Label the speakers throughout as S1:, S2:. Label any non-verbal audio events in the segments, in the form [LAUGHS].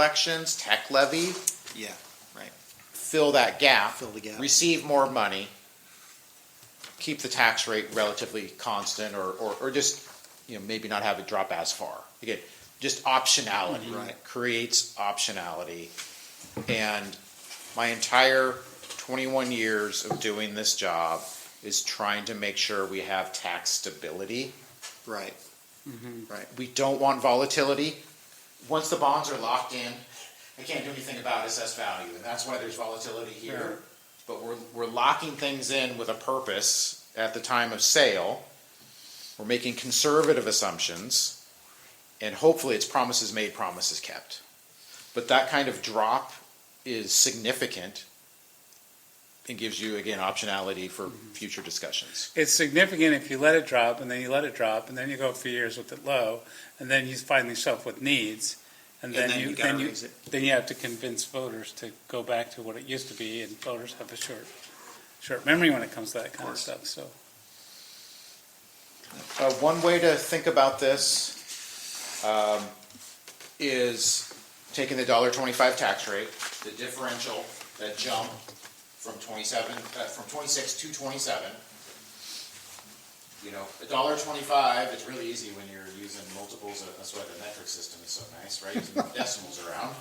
S1: collections, tech levy.
S2: Yeah, right.
S1: Fill that gap.
S2: Fill the gap.
S1: Receive more money. Keep the tax rate relatively constant or, or, or just, you know, maybe not have it drop as far. Again, just optionality.
S2: Right.
S1: Creates optionality. And my entire twenty-one years of doing this job is trying to make sure we have tax stability.
S2: Right.
S1: We don't want volatility. Once the bonds are locked in, I can't do anything about assessed value, and that's why there's volatility here. But we're, we're locking things in with a purpose at the time of sale. We're making conservative assumptions, and hopefully it's promises made, promises kept. But that kind of drop is significant and gives you, again, optionality for future discussions.
S3: It's significant if you let it drop and then you let it drop and then you go for years with it low and then you find yourself with needs and
S2: And
S3: then you,
S2: gotta
S3: then you,
S2: raise it.
S3: then you have to convince voters to go back to what it used to be and voters have a short, short memory when it comes to that kind of
S2: course.
S3: stuff, so.
S1: Uh, one way to think about this um, is taking the dollar twenty-five tax rate, the differential, that jump from twenty-seven, uh, from twenty-six to twenty-seven. You know, a dollar twenty-five, it's really easy when you're using multiples, of- that's why the metric system is so nice, right? Using Decimals around.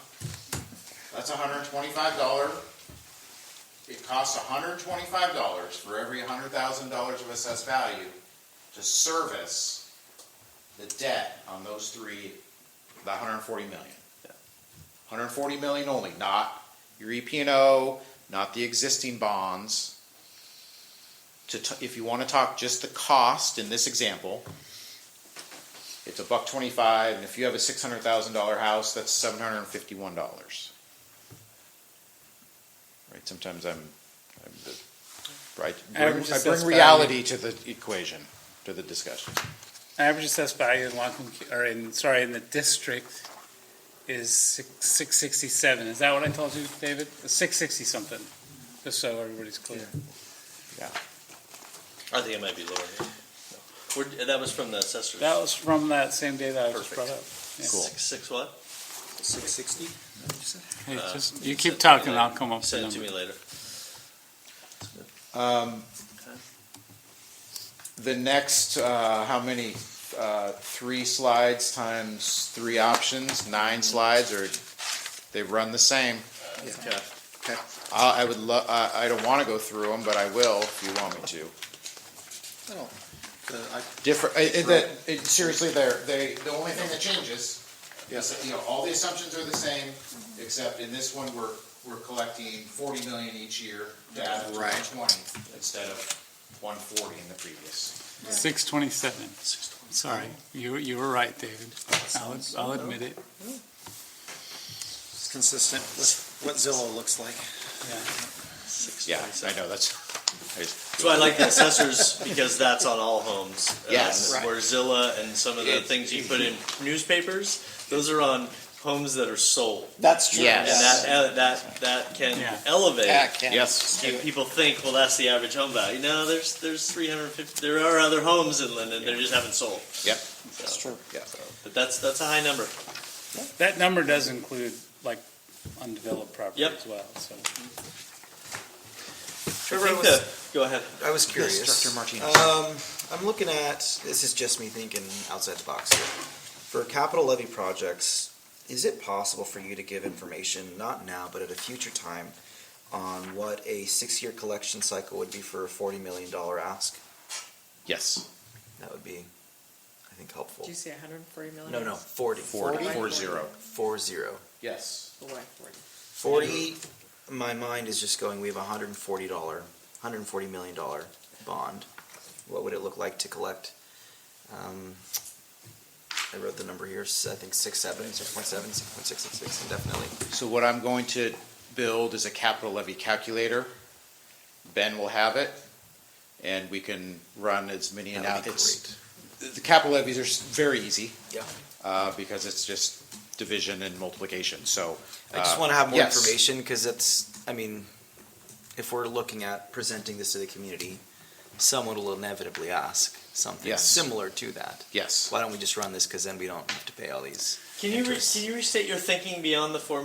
S1: That's hundred and twenty-five dollar it costs hundred and twenty-five dollars for every hundred thousand dollars of assessed value to service the debt on those three, the hundred and forty million. Hundred and forty million only, not your EP and O, not the existing bonds. To, t- if you wanna talk just the cost in this example, it's a buck twenty-five, and if you have a six hundred thousand dollar house, that's seven hundred and fifty-one dollars. Right, sometimes I'm, I'm the, right, I
S3: Average
S1: bring- I
S3: assessed
S1: bring
S3: value.
S1: reality to the equation, to the discussion.
S3: Average assessed value in Loncom, or in, sorry, in the district is six, six sixty-seven. Is that what I told you, David? Six sixty something, just so everybody's clear.
S4: I think it might be lower. yeah. We're, that was from the assessors.
S3: That was from that same day that I just
S4: Perfect.
S3: brought up. Yeah.
S1: Cool.
S4: Six, six what?
S2: Six sixty?
S3: Hey,
S4: Uh,
S3: just- You keep
S4: Send it to me
S3: talking,
S4: later.
S3: I'll come up with a
S4: Send it to
S3: number.
S4: me later.
S1: Um, The next, uh, how many, uh, three slides times three options, nine slides, or they run the same.
S4: Okay.
S1: I, I would lo, I, I don't wanna go through them, but I will if you want me to.
S2: Oh,
S1: Different, it, it, that- it, seriously, they're, they, the only thing that changes is, you know, all the assumptions are the same, except in this one, we're, we're collecting forty million each year to add up to one
S2: Right.
S1: twenty instead of one forty in the previous.
S3: Six twenty-seven. Sorry, you, were- you were right, David. I'll,
S2: Sounds-
S3: I'll admit it.
S2: It's consistent with what Zillow looks like.
S4: Six.
S1: Yeah, I know, that's, I just-
S4: So I like the assessors because that's on all homes.
S1: [LAUGHS] Yes.
S4: Um, Where Zillow and some of the
S1: It- [LAUGHS]
S4: things you put in newspapers, those are on homes that are sold.
S2: That's
S1: true. Yes.
S4: And that, uh, that, that can
S3: Yeah.
S4: elevate.
S1: yes,
S4: And people think, well, that's the average home value. No, there's, there's three hundred and fifty, there are other homes in Linden, they just haven't sold.
S1: yep,
S2: That's true.
S1: yeah.
S4: But that's, that's a high number.
S3: That number does include like undeveloped property
S4: Yep.
S3: as well, so.
S4: I think the- Go ahead.
S2: I was curious.
S1: Director Martinez.
S2: Um, I'm looking at, this is just me thinking outside the box here. For capital levy projects, is it possible for you to give information, not now, but at a future time, on what a six-year collection cycle would be for a forty million dollar ask?
S1: Yes.
S2: That would be, I think, helpful.
S5: Did you say hundred and forty million?
S2: No, no, forty.
S1: Forty,
S5: Forty?
S1: four zero.
S2: Four zero.
S1: Yes.
S5: Boy, forty.
S2: Forty, my mind is just going, we have a hundred and forty dollar, hundred and forty million dollar bond. What would it look like to collect? Um, I wrote the number here, s- I think six, seven, six point seven, six point six, six, six, indefinitely.
S1: So what I'm going to build is a capital levy calculator. Ben will have it, and we can run as many
S2: That would be
S1: analyses. The capital levies are s- very easy,
S2: Yeah.
S1: uh, because it's just division and multiplication, so.
S2: I just
S1: uh,
S2: wanna have more
S1: yes.
S2: information, cause it's, I mean, if we're looking at presenting this to the community, someone will inevitably ask something
S1: Yes.
S2: similar to that.
S1: Yes.
S2: Why don't we just run this? Because then we don't have to pay all these.
S4: Can you re-
S2: interests.
S4: can you restate your thinking beyond the four